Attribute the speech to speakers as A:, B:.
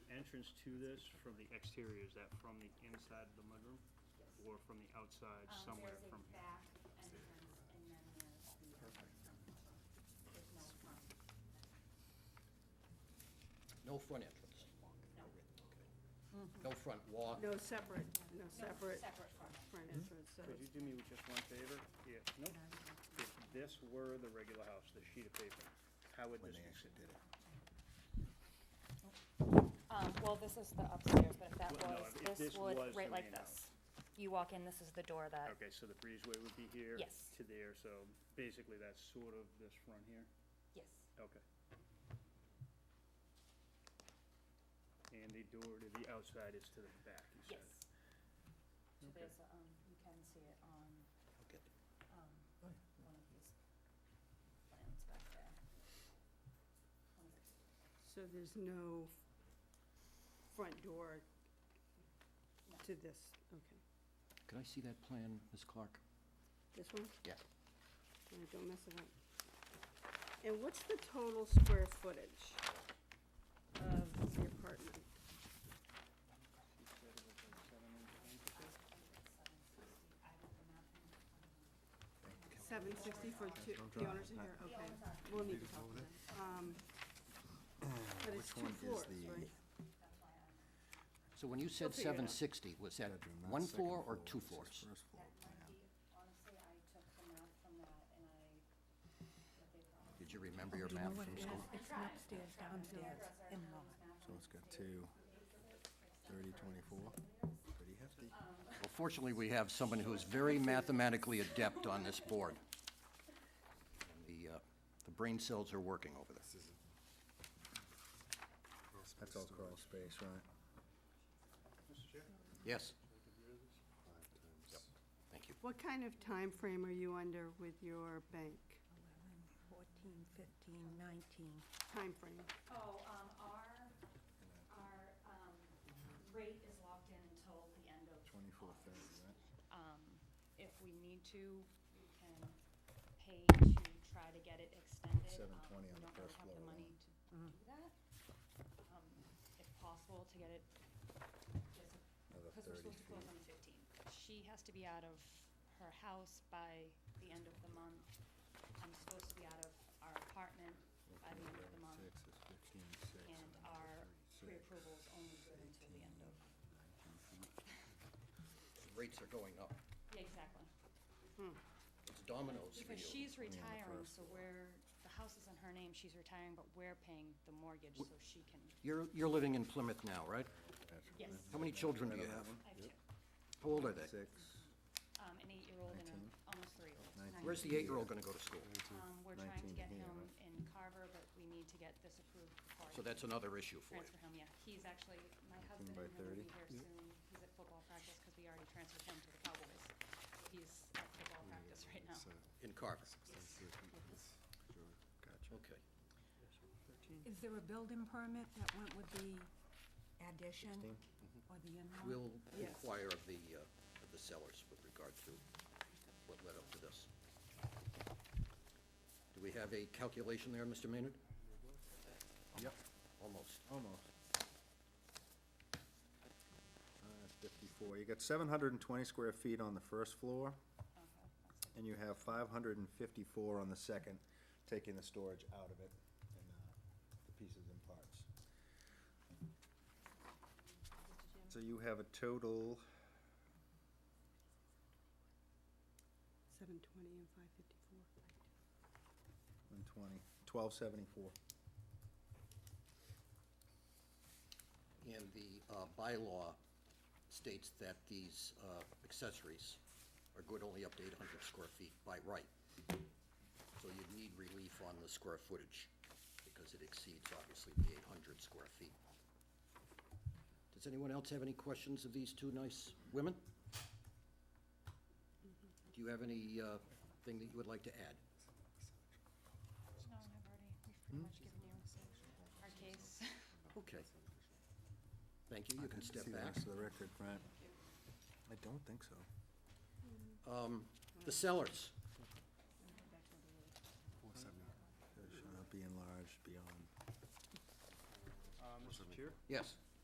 A: entrance to this from the exterior, is that from the inside of the mudroom?
B: Yes.
A: Or from the outside
B: Um,
A: somewhere
B: There's a
A: from?
B: back entrance and then there's the entrance from the front. There's no front.
C: No front entrance?
B: No.
D: Mm-hmm.
C: No front walk?
D: No separate, no separate
B: Separate front.
D: front entrance, so
A: Could you do me just one favor? Yeah, no, if this were the regular house, the sheet of paper, how would
E: when
A: this
E: they
A: be?
E: actually did it.
F: Um, well, this is the upstairs, but if that
A: Well, no,
F: was,
A: if
F: this
A: this
F: would,
A: was
F: right
A: the
F: like
A: main house.
F: this. You walk in, this is the door that,
A: Okay, so the breezeway would be here?
F: Yes.
A: To there, so basically that's sort of this front here?
F: yes,
A: Okay. And the door to the outside is to the back, you said?
F: yes. So
A: Okay.
F: there's, um, you can see it on,
C: Okay.
A: Oh,
F: um, one of these plans back there. One of these.
D: so there's no front door to this, okay.
C: Could I see that plan, Ms. Clark?
D: This one?
C: Yeah.
D: No, Don't mess it up. And what's the total square footage of the apartment?
A: She said it was like seven inches.
D: Seven sixty for two, the owners are here, okay. We'll need to talk to them. Um, But it's
E: Which
D: two
E: one
D: floors,
E: is the-
D: right?
C: So when you
D: We'll
C: said
D: figure it out.
C: seven sixty, was that
E: Bedroom, not
C: one
E: second
C: floor or two
E: this is
C: floors?
E: First floor
B: That might
E: plan.
B: be, honestly, I took the math from that and I, what they probably.
C: Did you remember your map from school?
B: It's an upstairs, downstairs, in-law.
E: So it's got two, thirty, twenty-four, pretty hefty.
C: Well, fortunately, we have someone who is very mathematically adept on this board. And The, uh, the brain cells are working over there.
E: That's all crawl space, right?
C: Yes? Yep. Thank you.
D: What kind of time frame are you under with your bank?
G: 11, 14, 15, 19.
D: Time frame?
B: Oh, um, our, our, um, rate is locked in until the end of.
E: Twenty-four, thirty, right?
B: Um, if we need to, we can pay to try to get it extended.
E: 720
B: Um,
E: on the first
B: We don't really have the
E: floor
B: money to do that. Um, if possible, to get it, just,
E: Another
B: because we're
E: 30
B: supposed to close
E: feet.
B: on the fifteenth. She has to be out of her house by the end of the month. I'm supposed to be out of our apartment by the end of the month.
E: Six is fifteen, six.
B: And
E: another
B: our
E: three, six,
B: pre-approval is only good until the end of,
E: 19 feet.
C: Rates are going up.
B: yeah, exactly.
C: It's dominoes for you.
B: Because she's retiring,
E: first
B: so we're, the house is in her name, she's retiring, but we're paying the mortgage, so she can,
C: You're, you're living in Plymouth now, right?
E: That's
B: yes,
C: How many children do you have?
B: I have two,
C: How old are they?
E: Six,
B: um, an eight-year-old and
E: Nineteen.
B: an almost three-year-old.
E: Nineteen.
C: Where's the eight-year-old gonna go to school?
B: Um, we're trying to
E: Nineteen
B: get
E: here,
B: him
E: right?
B: in Carver, but we need to get this approved before. I
C: So that's
B: can
C: another issue for you.
B: Transfer him, yeah, he's actually, my husband
E: by
B: and him will be
E: 30.
B: here soon, he's at football practice, because we already transferred him to the Cowboys. He's at football practice right now.
E: so,
C: In Carver.
E: let's see if we can- sure. Gotcha.
C: Okay.
G: Is there a building permit that went with the addition
E: 16?
G: or the in-law?
C: We'll
D: Yes.
C: inquire of the, uh, of the sellers with regard to what led up to this. Do we have a calculation there, Mr. Maynard?
E: Yep,
C: Almost.
E: almost. Uh, Fifty-four, you got seven hundred and twenty square feet on the first floor,
B: Okay, that's it.
E: and you have five hundred and fifty-four on the second, taking the storage out of it and, uh, the pieces and parts. So you have a total,
D: Seven twenty and five fifty-four.
E: one twenty, twelve seventy-four.
C: And the uh, bylaw states that these uh, accessories are good only up to 800 square feet by right. So you'd need relief on the square footage, because it exceeds, obviously, the 800 square feet. Does anyone else have any questions of these two nice women? Do you have any uh, thing that you would like to add?
B: No, I've already, we've pretty much given you our case.
C: Okay. Thank you, you can step
E: See the
C: back.
E: rest of the record, right? I don't think so.
C: Um, The sellers,
E: It should not be enlarged beyond.
A: Uh, Mr. Chair,
C: yes.